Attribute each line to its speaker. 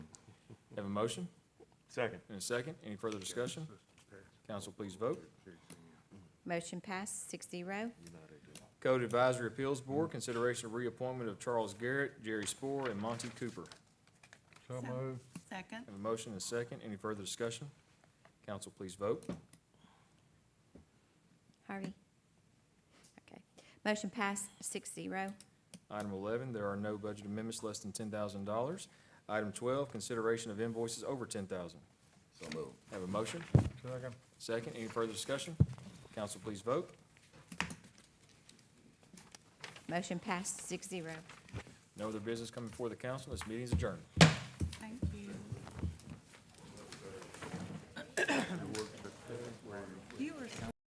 Speaker 1: Have a motion
Speaker 2: Second.
Speaker 1: and a second. Any further discussion? Council, please vote.
Speaker 3: Motion passed, six zero.
Speaker 1: Code Advisory Appeals Board, consideration of reappointment of Charles Garrett, Jerry Spore, and Monty Cooper.
Speaker 4: So moved. Second.
Speaker 1: Have a motion and a second. Any further discussion? Council, please vote.
Speaker 3: Harvey? Okay. Motion passed, six zero.
Speaker 1: Item eleven, there are no budget amendments less than ten thousand dollars. Item twelve, consideration of invoices over ten thousand.
Speaker 5: So moved.
Speaker 1: Have a motion?
Speaker 4: Second.
Speaker 1: Second, any further discussion? Council, please vote.
Speaker 3: Motion passed, six zero.
Speaker 1: No other business coming before the council. This meeting is adjourned.